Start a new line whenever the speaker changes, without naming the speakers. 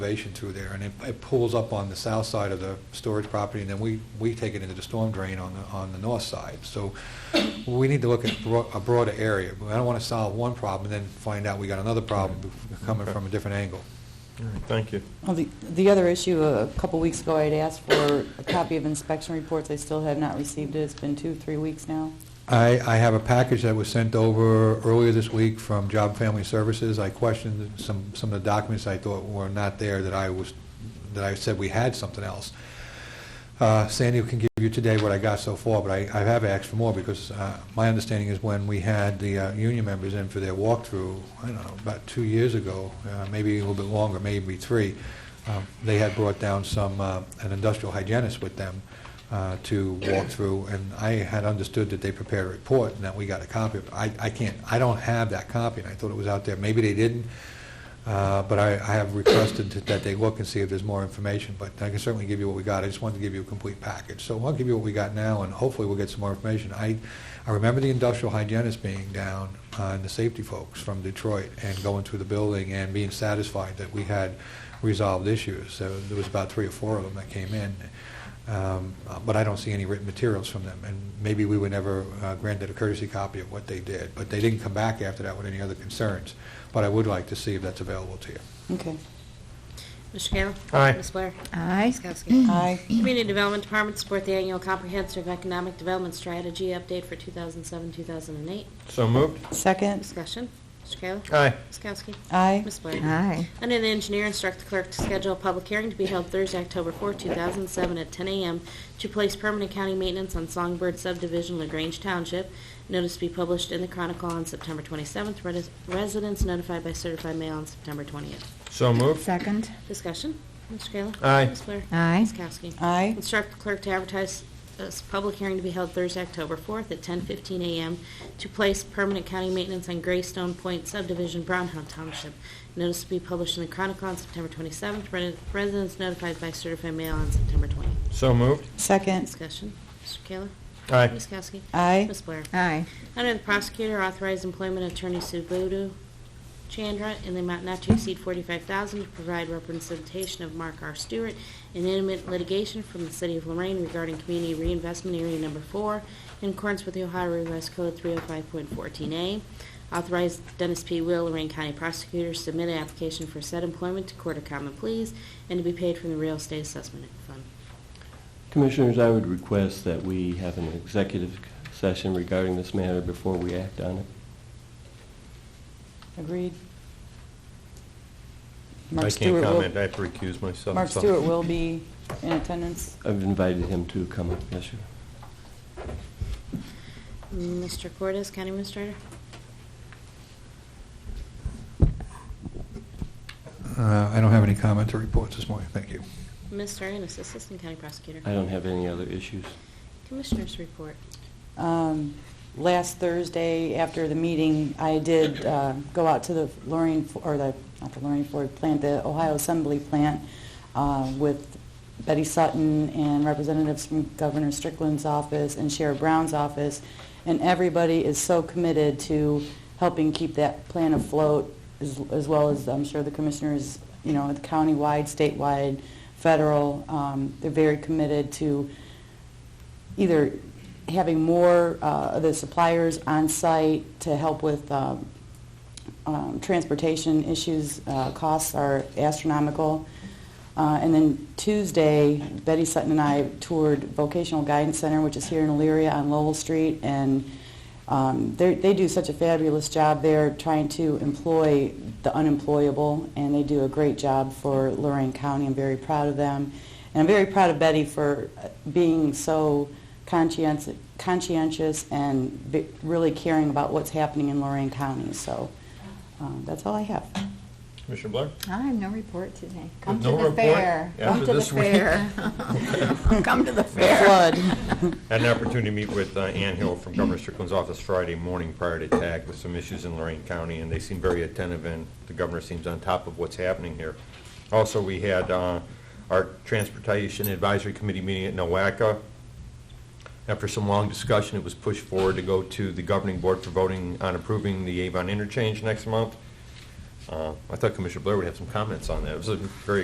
elevation through there, and it, it pulls up on the south side of the storage property, and then we, we take it into the storm drain on the, on the north side. So we need to look at bro- a broader area. I don't want to solve one problem and then find out we got another problem coming from a different angle.
All right, Thank you.
Well, the, the other issue, a couple weeks ago, I had asked for a copy of inspection reports. I still have not received it. It's been two, three weeks now.
I, I have a package that was sent over earlier this week from Job and Family Services. I questioned some, some of the documents I thought were not there that I was, that I said we had something else. Uh, Sandy can give you today what I got so far, but I, I have asked for more because uh, my understanding is when we had the uh, union members in for their walkthrough, I don't know, about two years ago, uh, maybe a little bit longer, maybe three, um, they had brought down some, uh, an industrial hygienist with them uh, to walk through, and I had understood that they prepared a report and that we got a copy of it. I, I can't, I don't have that copy, and I thought it was out there. Maybe they didn't, uh, but I, I have requested that they look and see if there's more information, but I can certainly give you what we got. I just wanted to give you a complete package. So I'll give you what we got now, and hopefully we'll get some more information. I, I remember the industrial hygienist being down, uh, and the safety folks from Detroit, and going through the building and being satisfied that we had resolved issues. So there was about three or four of them that came in, Um, uh, but I don't see any written materials from them, and maybe we were never uh, granted a courtesy copy of what they did, but they didn't come back after that with any other concerns but I would like to see if that's available to you.
Okay.
Mr. Kayla.
Aye.
Ms. Blair.
Aye.
Ms. Kowski.
Aye.
Community Development Department support the annual comprehensive economic development strategy update for 2007-2008.
So moved.
Second.
Discussion. Mr. Kayla.
Aye.
Ms. Kowski.
Aye.
Ms. Blair.
Aye.
Under the engineer, instruct the clerk to schedule a public hearing to be held Thursday, October 4, 2007, at 10 a.m. to place permanent county maintenance on Songbird subdivision, LaGrange Township. Notice to be published in the Chronicle on September 27th. Res- Residents notified by certified mail on September 20th.
So moved.
Second.
Discussion. Mr. Kayla.
Aye.
Ms. Blair.
Aye.
Ms. Kowski.
Aye.
Instruct the clerk to advertise this public hearing to be held Thursday, October 4th at 10:15 a.m. to place permanent county maintenance on Greystone Point subdivision, Brownhill Township. Notice to be published in the Chronicle on September 27th. Re- Residents notified by certified mail on September 20th.
So moved.
Second.
Discussion. Mr. Kayla.
Aye.
Ms. Kowski.
Aye.
Ms. Blair.
Aye.
Under the prosecutor, authorize employment of attorney Subudu Chandra in the amount not to exceed 45000 to provide representation of Mark R. Stewart in intimate litigation from the City of Lorraine regarding Community Reinvestment Area Number 4 in accordance with the Ohio Revised Code 305.14A. Authorize Dennis P. Will, Lorraine County Prosecutor, submit an application for said employment to Court of Common Pleas and to be paid from the Real Estate Assessment Fund.
Commissioners, I would request that we have an executive session regarding this matter before we act on it.
Agreed.
I
Mark
can't
Stewart will-
comment. I have to recuse myself.
Mark
so-
Stewart will be in attendance.
I've invited him to come up, yes, sir.
Mr. Cortez, County Administrator?
Uh, I don't have any comment to report this morning, thank you.
Ms. Ennis, Assistant County Prosecutor?
I don't have any other issues.
Commissioners report.
Um, Last Thursday, after the meeting, I did uh, go out to the Lorraine, F- or the, not the Lorraine Ford plant, the Ohio Assembly plant uh, with Betty Sutton and representatives from Governor Strickland's office and Sheriff Brown's office, and everybody is so committed to helping keep that plant afloat, as as well as, I'm sure, the commissioners, you know, at the countywide, statewide, federal. Um, They're very committed to either having more uh, of the suppliers on site to help with um, um, transportation issues, uh, costs are astronomical. Uh, And then Tuesday, Betty Sutton and I toured Vocational Guidance Center, which is here in Elyria on Lowell Street, and um, they're- they do such a fabulous job there trying to employ the unemployable, and they do a great job for Lorraine County. I'm very proud of them. And I'm very proud of Betty for uh, being so conscientious, conscientious and be- really caring about what's happening in Lorraine County. So um, that's all I have.
Commissioner Blair?
I have no report today. Come
With
to
no
the
report
fair. Come
after
to the
this week.
fair. Come to the fair.
Flood.
Had an opportunity to meet with uh, Ann Hill from Governor Strickland's office Friday morning prior to TAG with some issues in Lorraine County, and they seem very attentive, and the governor seems on top of what's happening here. Also, we had uh, our Transportation Advisory Committee meeting at Nowaka. After some long discussion, it was pushed forward to go to the governing board for voting on approving the Avon interchange next month. Uh, I thought Commissioner Blair would have some comments on that. It was a very